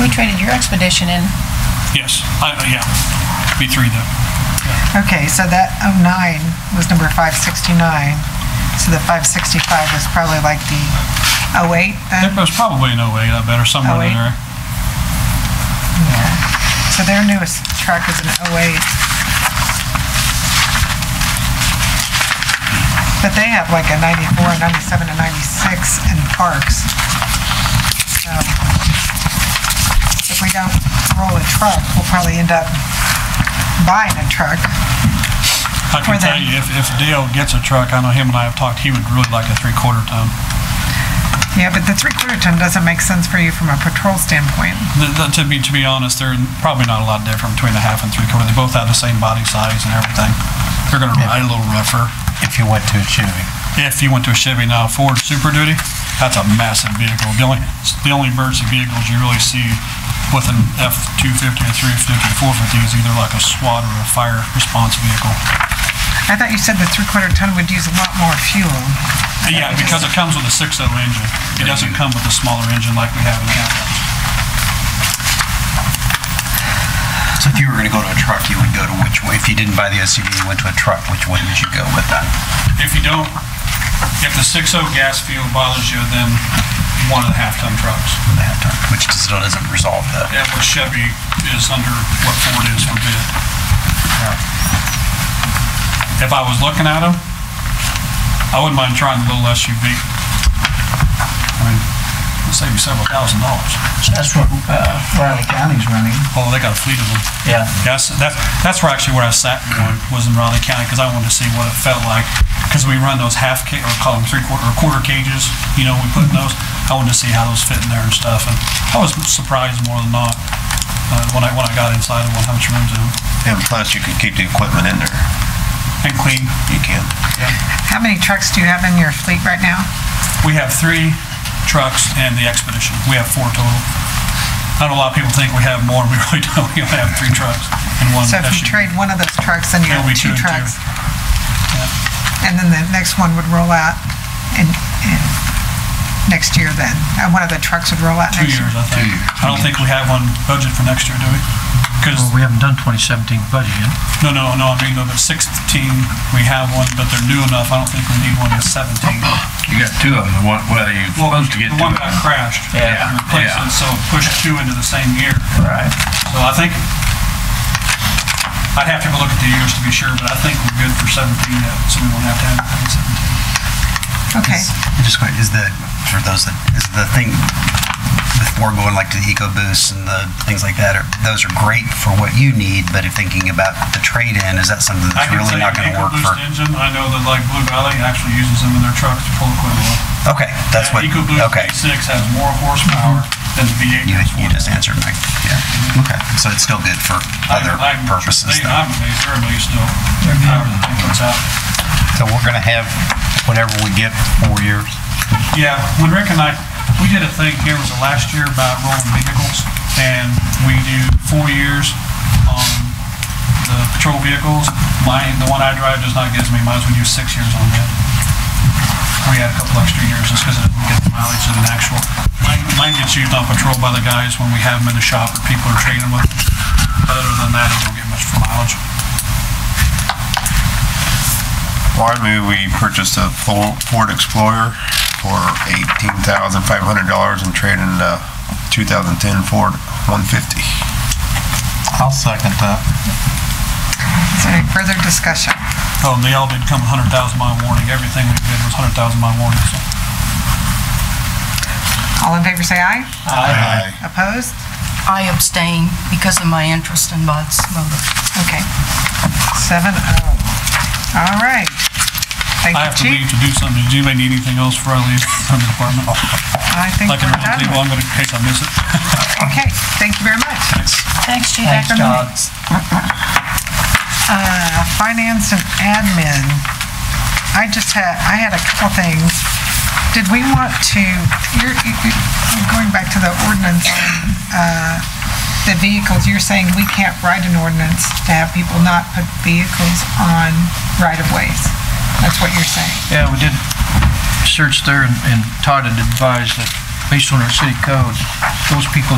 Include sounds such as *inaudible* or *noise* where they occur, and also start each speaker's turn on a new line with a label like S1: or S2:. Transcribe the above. S1: We traded your expedition in.
S2: Yes, I, I- yeah, B three though.
S3: Okay, so that 09 was number 569, so the 565 was probably like the
S2: It
S3: 08 then?
S2: was probably in 08, I bet, or somewhere in
S3: 08?
S2: there.
S3: So their newest truck is an 08. But they have like a 94, 97, and 96 in parks. So If we don't roll a truck, we'll probably end up buying a truck.
S2: I can
S3: For
S2: tell
S3: them.
S2: you, if, if Dale gets a truck, I know him and I have talked, he would really like a three-quarter ton.
S3: Yeah, but the three-quarter ton doesn't make sense for you from a patrol standpoint.
S2: The- the- To be, to be honest, they're probably not a lot different between a half and three-quarter. They both have the same body size and everything. They're gonna ride a little rougher.
S4: if you went to a Chevy.
S2: If you went to a Chevy now, Ford Super Duty, that's a massive vehicle. The only, it's the only emergency vehicles you really see with an F-250 or 350 or 450 is either like a SWAT or a fire response vehicle.
S3: I thought you said the three-quarter ton would use a lot more fuel.
S2: Uh, Yeah, because it comes with a 6.0 engine. It doesn't come with a smaller engine like we have in the Atlas.
S4: So if you were going to go to a truck, you would go to which way? If you didn't buy the SUV and went to a truck, which way would you go with that?
S2: If you don't, if the 6.0 gas fuel bothers you, then one and a half ton trucks.
S4: With that truck, Which still doesn't resolve the,
S2: And what Chevy is under, what Ford is for bid. If I was looking at them, I wouldn't mind trying the little SUV. I mean, it'll save you several thousand dollars.
S5: That's what uh, Riley County's running.
S2: Oh, they got a fleet of them.
S5: Yeah.
S2: That's, that's, that's where actually where I sat going, was in Raleigh County, because I wanted to see what it felt like. Because we run those half ca, or call them three quarter, or quarter cages, you know, we put in those. I wanted to see how those fit in there and stuff, and I was surprised more than not, uh, when I, when I got inside of one, how much room's in them.
S4: and plus you could keep the equipment in there.
S2: And clean.
S4: You can.
S3: How many trucks do you have in your fleet right now?
S2: We have three trucks and the Expedition. We have four total. I know a lot of people think we have more, we really *laughs* don't. We only have three trucks and one
S3: So if you
S2: SUV.
S3: trade one of those trucks, then you
S2: It'll
S3: have
S2: be two and
S3: two
S2: two.
S3: trucks. And then the next one would roll out in, in next year then? Uh, One of the trucks would roll out
S2: Two
S3: next year?
S2: years, I think. I don't think we have one budget for next year, do we? Because,
S5: Well, we haven't done 2017 budget yet.
S2: no, no, no, I mean, no, but 16, we have one, but they're new enough. I don't think we need one in 17.
S6: You got two of them, one, well, you're
S2: Well,
S6: supposed to get
S2: The
S6: two
S2: one
S6: of
S2: got
S6: them.
S2: crashed.
S5: Yeah,
S2: And replaced
S6: yeah.
S2: it, so pushed two into the same year.
S5: Right.
S2: So I think, I'd have to go look at the years to be sure, but I think we're good for 17, uh, so we won't have to have it in 17.
S3: Okay.
S4: Is- Just quite, is the, for those that, is the thing before going like to the EcoBoost and the things like that, are, those are great for what you need, but if thinking about the trade-in, is that something
S2: I
S4: that's
S2: can tell
S4: really
S2: you
S4: not
S2: an
S4: going to work for?
S2: EcoBoost engine, I know that like Blue Valley actually uses them in their trucks to pull equipment off.
S4: Okay, that's what,
S2: That EcoBoost
S4: okay.
S2: V6 has more horsepower than the V8
S4: You,
S2: does.
S4: you just answered my, yeah, okay, so it's still good for
S2: I'm-
S4: other
S2: I'm-
S4: purposes
S2: they-
S4: though.
S2: I'm amazed, they're amazed still, their power that they puts out.
S7: So we're gonna have whatever we get for four years.
S2: Yeah, when Rick and I, we did a thing here, was it last year about rolling vehicles? And we do four years on the patrol vehicles. Mine, the one I drive does not give me, might as well do six years on that. We had a couple extra years just because it didn't get the mileage of an actual. Mine, mine gets used on patrol by the guys when we have them in the shop or people are trading with them. But Other than that, it don't get much for mileage.
S8: Well, I move we purchased a Fo- Ford Explorer for eighteen thousand five hundred dollars and trade in a two thousand ten Ford one fifty.
S7: I'll second that.
S3: Is there any further discussion?
S2: Oh, and they all did come 100,000 mile warning. Everything we did was 100,000 mile warning, so.
S3: All in favor, say aye. Opposed?
S9: I abstain because of my interest in Bud's motor.
S3: Okay. Seven oh. All right. Thank
S2: I
S3: you,
S2: have to
S3: chief.
S2: leave to do something. Does anybody need anything else before I leave from the department?
S3: I think
S2: Like an
S3: we're
S2: emergency,
S3: done.
S2: well, I'm gonna, in case I miss it.
S3: Okay, thank you very much.
S1: Thanks, Chief
S5: Thanks,
S1: Ackerman.
S5: Todd.
S3: Uh, Finance and admin. I just had, I had a couple things. Did we want to, you're, you- you- I'm going back to the ordinance on uh, the vehicles, you're saying we can't write an ordinance to have people not put vehicles on right-of-ways. That's what you're saying.
S5: Yeah, we did search there, and- and Todd had advised that based on our city code, those people